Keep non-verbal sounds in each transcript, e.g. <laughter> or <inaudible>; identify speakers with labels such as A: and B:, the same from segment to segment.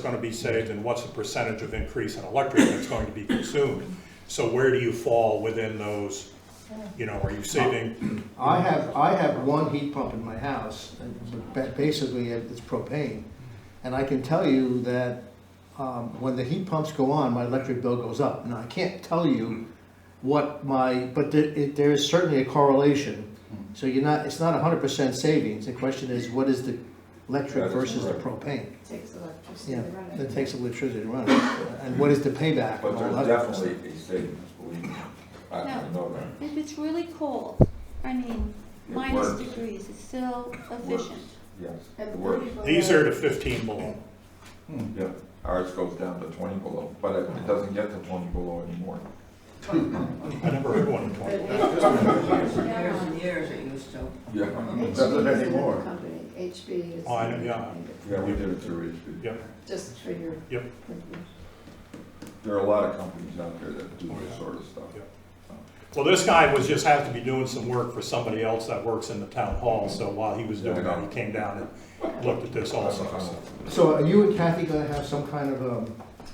A: gonna be saved and what's the percentage of increase in electric that's going to be consumed? So where do you fall within those, you know, are you saving?
B: I have, I have one heat pump in my house, and ba- basically it's propane. And I can tell you that um, when the heat pumps go on, my electric bill goes up. Now, I can't tell you what my, but there, it- there is certainly a correlation. So you're not, it's not hundred percent savings. The question is, what is the electric
C: That is
B: versus the
C: correct.
B: propane?
D: Takes electricity
B: Yeah,
D: to run it.
B: that takes electricity to run it. And what is the payback?
C: But
B: and all
C: there's
B: that kind of
C: definitely a savings, believe me. I I know that.
E: If it's really cold, I mean,
C: It
E: minus
C: works.
E: degrees, it's still efficient.
C: Yes,
D: At
C: it works.
D: 30 below.
A: These are to fifteen below.
C: Yeah, ours goes down to twenty below, but it it doesn't get to twenty below anymore.
A: I never heard one in
D: But
A: twenty.
D: it used to be
F: Years
D: down.
F: and years it used to.
C: <laughs> Yeah,
D: HB
C: it
D: is another
C: doesn't anymore.
D: company, HB is.
A: Oh, I know, yeah.
C: Yeah, we did it through HP.
A: Yep,
D: Just for your.
A: Yep.
C: There are a lot of companies out there that do
A: Oh, yeah.
C: this sort of stuff.
A: Yeah. well, this guy was just have to be doing some work for somebody else that works in the town hall, so while he was doing that, he came down and looked at this also, so.
B: So are you and Kathy gonna have some kind of, um,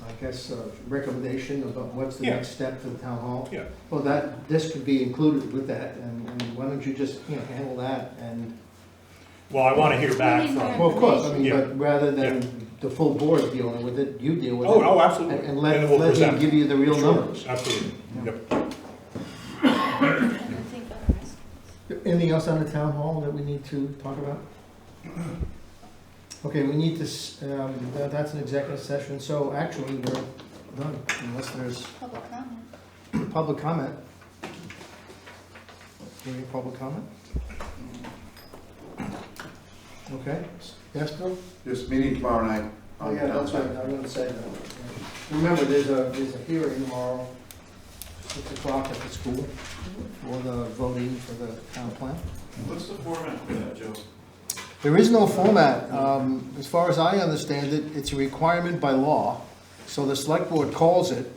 B: I guess, uh, recommendation about what's the
A: Yeah.
B: next step for the town hall?
A: Yeah.
B: Well, that, this could be included with that, and, and why don't you just, you know, handle that, and,
A: Well, I wanna hear back
E: Maybe
A: from,
E: more.
B: well, of course, I mean,
A: Yeah.
B: but rather than the full board dealing with it, you deal with it.
A: oh, oh, absolutely.
B: And and
A: Then
B: let,
A: we'll
B: let him
A: present.
B: give you the real
A: Sure,
B: numbers.
A: Absolutely, yep.
E: I don't think others.
B: Anything else on the town hall that we need to talk about? Okay, we need to, s- um, tha- that's an executive session, so actually, we're done, unless there's
E: public comment.
B: Public comment. Any public comment? Okay, yes, Bill?
G: This meeting tomorrow night.
B: Oh, yeah, that's right, I'm gonna say that. Remember, there's a, there's a hearing tomorrow, six o'clock at the school, for the voting for the town plan.
H: What's the format for that, Joe?
B: There is no format. Um, As far as I understand it, it's a requirement by law, so the select board calls it,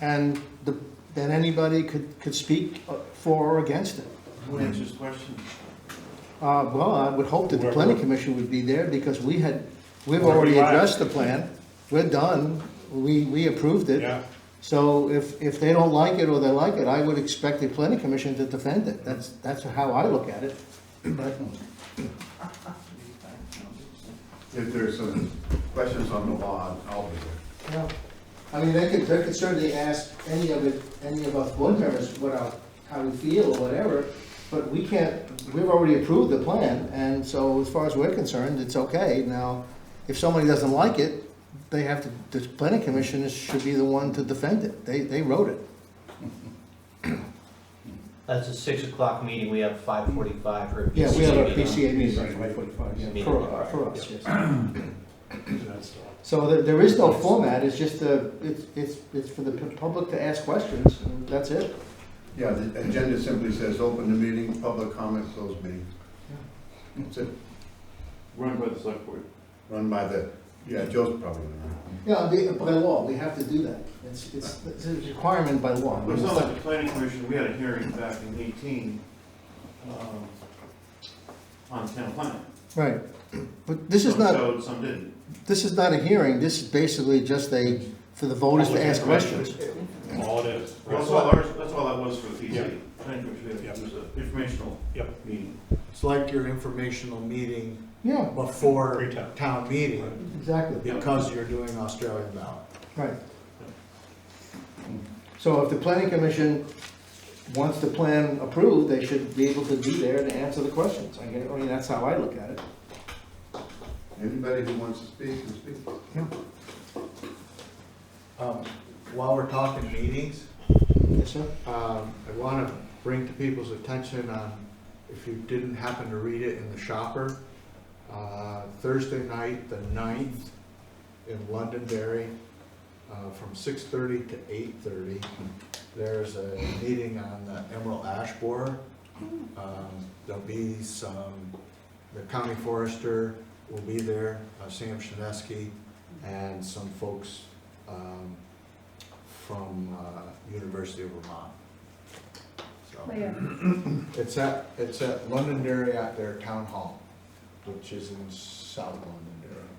B: and the- then anybody could, could speak uh, for or against it.
H: Who answers questions?
B: Uh, well, I would hope that the planning commission would be there, because we had, we've already addressed the plan. We're done, we, we approved it.
A: Yeah,
B: So if, if they don't like it or they like it, I would expect the planning commission to defend it. That's, that's how I look at it. But
G: If there's some questions on the law, I'll be there.
B: Yeah, I mean, they could, they could certainly ask any of it, any of us board members what our, how we feel or whatever, but we can't, we've already approved the plan, and so as far as we're concerned, it's okay. Now, if somebody doesn't like it, they have to, the planning commission should be the one to defend it, they, they wrote it.
I: That's a six o'clock meeting, we have five forty-five for a PCA
B: Yeah, we have a
I: meeting.
B: PCA meeting at
A: Right.
B: five forty-five, yeah,
I: Meeting,
B: for,
I: right.
B: for us, yes.
A: that's, uh,
B: So there, there is no format, it's just a, it's, it's, it's for the public to ask questions, and that's it.
G: Yeah, the agenda simply says, open the meeting, public comment, close meeting. That's it,
H: Run by the select board.
G: run by the, yeah, Joe's probably gonna run.
B: Yeah, the- by law, we have to do that. It's, it's, it's a requirement by law.
H: It's not like the planning commission, we had a hearing back in eighteen, um, on town plan.
B: Right, but this is
H: Some
B: not,
H: showed, Some didn't.
B: this is not a hearing, this is basically just a, for the voters to ask questions.
A: all it is.
H: That's all ours, that's all that was for the
A: Yeah.
H: PC. Planning commission,
A: Yeah.
H: it was an informational
A: Yep.
H: meeting.
J: It's like your informational meeting
B: Yeah,
J: before
A: Pre-town.
J: town meeting,
B: exactly,
J: because you're doing Australian ballot.
B: right. So if the planning commission wants the plan approved, they should be able to be there to answer the questions. I guess- I mean, that's how I look at it.
G: Anybody who wants to speak, can speak.
J: Um, While we're talking meetings,
B: Yes, sir?
J: um, I want to bring to people's attention um, on, if you didn't happen to read it in the shopper, uh, Thursday night, the 9th, in Londonderry, uh, from 6:30 to 8:30, there's a meeting on the Emerald Ash Borer. Um, There'll be some, the county forester will be there, uh, Sam Shinesky, and some folks um, from uh, University of Vermont. So, it's at, it's at Londonderry at their town hall, which is in South Londonderry.